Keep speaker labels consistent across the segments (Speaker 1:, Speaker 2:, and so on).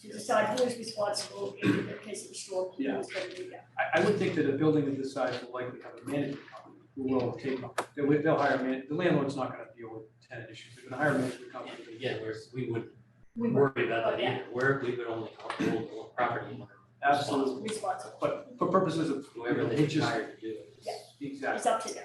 Speaker 1: Yeah.
Speaker 2: decide who is responsible in the case of a storm, who's
Speaker 1: Yeah.
Speaker 2: gonna do that.
Speaker 1: I, I would think that a building of this size will likely have a management company who will take, they'll, they'll hire a man, the landlord's not gonna deal with tenant issues, they're gonna hire a management company.
Speaker 3: And Again, we're, we would
Speaker 2: We were
Speaker 3: worry about that
Speaker 2: Yeah.
Speaker 3: either, we're, we would only hold the property owner.
Speaker 1: Absolutely,
Speaker 2: responsible,
Speaker 1: but for purposes of, you
Speaker 3: Whoever
Speaker 1: know,
Speaker 3: they
Speaker 1: it just,
Speaker 3: hire to do it.
Speaker 2: Yeah.
Speaker 1: exactly,
Speaker 2: it's up to them.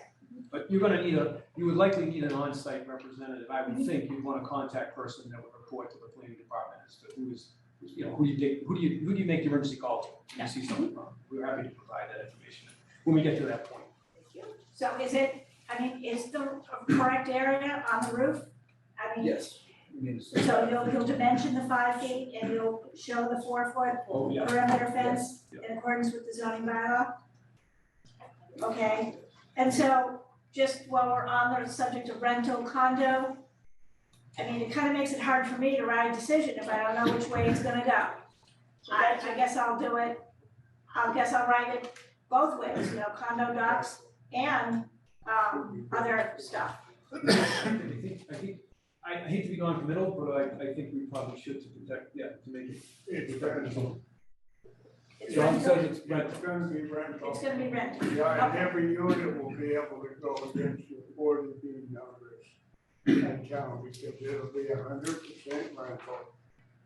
Speaker 1: but you're gonna need a, you would likely need an on-site representative, I would think you'd want a contact person that would report to the planning department as to who's, who's, you know, who you take, who do you, who do you make the emergency call to, when you see something wrong, we're happy to provide that information when we get to that point.
Speaker 2: Thank you. So is it, I mean, is the correct area on the roof? I mean,
Speaker 4: Yes.
Speaker 2: so you'll, you'll dimension the five feet and you'll show the four foot
Speaker 1: Oh, yeah.
Speaker 2: perimeter fence
Speaker 1: Yeah.
Speaker 2: in accordance with the zoning bylaw? Okay, and so just while we're on the subject of rental condo, I mean, it kind of makes it hard for me to write a decision if I don't know which way it's gonna go. I, I guess I'll do it, I guess I'll write it both ways, you know, condo docs and, um, other stuff.
Speaker 1: I think, I think, I I hate to be non-committal, but I, I think we probably should to protect, yeah, to make it.
Speaker 5: It's rental.
Speaker 2: It's
Speaker 1: John
Speaker 2: rental,
Speaker 1: says it's rental.
Speaker 5: It's gonna be rental.
Speaker 2: it's gonna be rental.
Speaker 5: Yeah, and every unit will be able to go against your forty B numbers in town, because it'll be a hundred percent rental.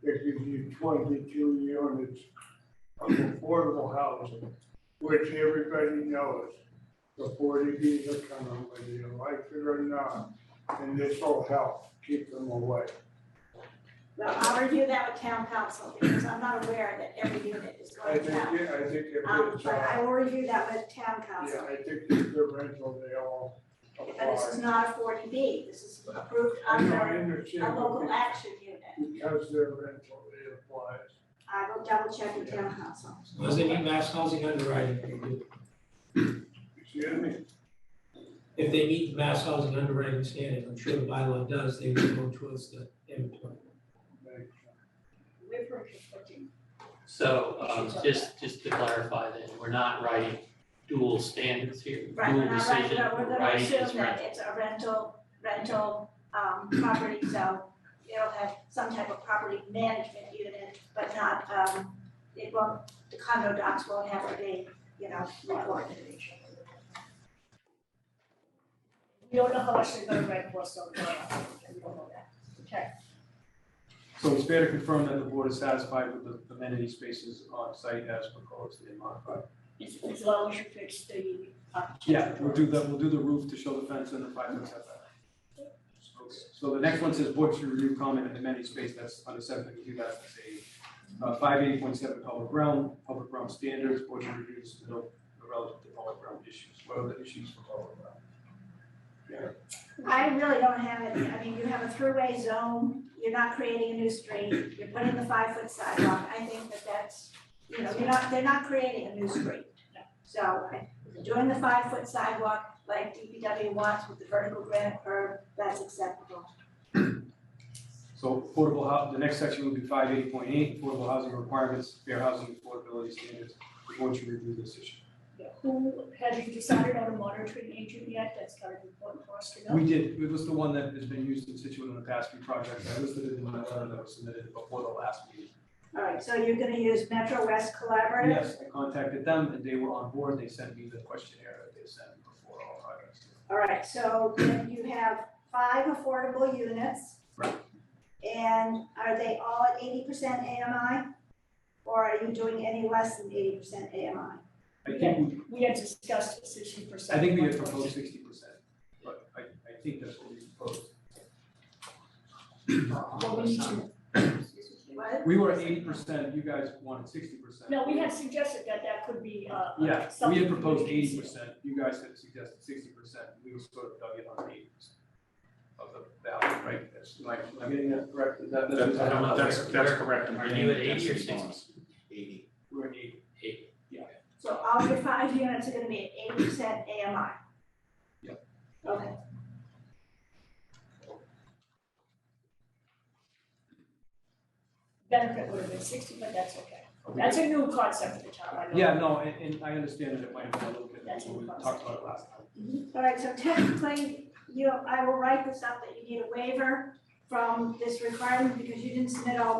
Speaker 5: It gives you twenty-two units of affordable housing, which everybody knows. The forty Bs are coming, whether you like it or not, and this will help keep them away.
Speaker 2: Well, I'll review that with town council, because I'm not aware that every unit is
Speaker 5: I
Speaker 2: going
Speaker 5: think,
Speaker 2: to have.
Speaker 5: it- I think if
Speaker 2: Um,
Speaker 5: it's,
Speaker 2: but I
Speaker 5: uh,
Speaker 2: will review that with town
Speaker 5: yeah,
Speaker 2: council,
Speaker 5: I think if they're rental, they all apply.
Speaker 2: but this is not a forty B, this is approved
Speaker 5: I know,
Speaker 2: under
Speaker 5: I
Speaker 2: a
Speaker 5: understand.
Speaker 2: local action unit.
Speaker 5: Because they're rental, it applies.
Speaker 2: I will double check with town council.
Speaker 6: Does they need mass housing underwriting?
Speaker 5: Excuse me?
Speaker 6: If they meet the mass housing underwriting standards, I'm sure the bylaw does, they would go towards the inventory.
Speaker 5: Thank
Speaker 2: We're for conflicting.
Speaker 3: So, um, just, just to clarify then, we're not writing dual standards here,
Speaker 2: Right,
Speaker 3: dual
Speaker 2: we're not right,
Speaker 3: decision,
Speaker 2: but we're
Speaker 3: we're
Speaker 2: gonna
Speaker 3: writing as
Speaker 2: assume that
Speaker 3: rental.
Speaker 2: it's a rental, rental, um, property, so it'll have some type of property management unit, but not, um, it won't, the condo docs won't have to be, you know, recorded. We don't know how much they're gonna rent for, so we don't know that. Okay.
Speaker 1: So it's fair to confirm that the board is satisfied with the amenity spaces on site as proposed and modified.
Speaker 2: As, as long as you fix the.
Speaker 7: uh,
Speaker 1: Yeah, we'll do the, we'll do the roof to show the fence and the five foot setback. Okay, So the next one says board should review comment and amenity space that's under seven fifty-two, that's a uh, five eighty point seven public realm, public realm standards, board should review this, you know, relative to public realm issues, what are the issues for public realm?
Speaker 2: I really don't have any, I mean, you have a throughway zone, you're not creating a new street, you're putting the five foot sidewalk, I think that that's, you know, you're not, they're not creating a new street. So I, doing the five foot sidewalk like DPW wants with the vertical granite curb, that's acceptable.
Speaker 1: So affordable hou, the next section will be five eighty point eight, affordable housing requirements, fair housing affordability standards, we want you to review this issue.
Speaker 7: Yeah, Who, have you decided on a monitoring agent yet? That's kind of important for us to know.
Speaker 1: We did, it was the one that has been used in Situate in the past few projects, I listed it in my letter that was submitted before the last meeting.
Speaker 2: All right, so you're gonna use Metro West Collaborative?
Speaker 1: Yes, I contacted them and they were on board, they sent me the questionnaire that they sent before all projects.
Speaker 2: All right, so then you have five affordable units.
Speaker 1: Right.
Speaker 2: And are they all at eighty percent AMI? Or are you doing any less than eighty percent AMI?
Speaker 1: I think, we-
Speaker 7: We had discussed this issue for some.
Speaker 1: I think we had proposed sixty percent, but I, I think that's what we proposed.
Speaker 7: Well, we need to,
Speaker 2: What?
Speaker 1: We were at eighty percent, you guys wanted sixty percent.
Speaker 7: no, we had suggested that that could be, uh,
Speaker 1: Yeah, we
Speaker 7: something
Speaker 1: had proposed
Speaker 7: we
Speaker 1: eighty
Speaker 7: could
Speaker 1: percent, you guys had suggested sixty percent, we were sort of dug in on eighty percent of the value, right? That's my, am I getting that correct? Is that-
Speaker 3: That's- I don't know.
Speaker 8: That's, that's
Speaker 3: Where-
Speaker 8: correct. I'm
Speaker 3: are
Speaker 8: getting
Speaker 3: you at
Speaker 8: the
Speaker 3: 80 or
Speaker 8: density
Speaker 3: 60?
Speaker 8: bonus. Eighty.
Speaker 1: We're at eighty,
Speaker 3: Eight.
Speaker 2: So all your five units are gonna be at eighty percent AMI? Yep. Okay.
Speaker 7: Benefit would have been sixty, but that's okay. That's a new concept for the town, I know.
Speaker 1: yeah, no, and, and I understand that it might have been a little bit,
Speaker 7: That's
Speaker 1: we
Speaker 7: in the
Speaker 1: talked about it last time.
Speaker 2: All right, so technically, you, I will write this up that you need a waiver from this requirement because you didn't submit all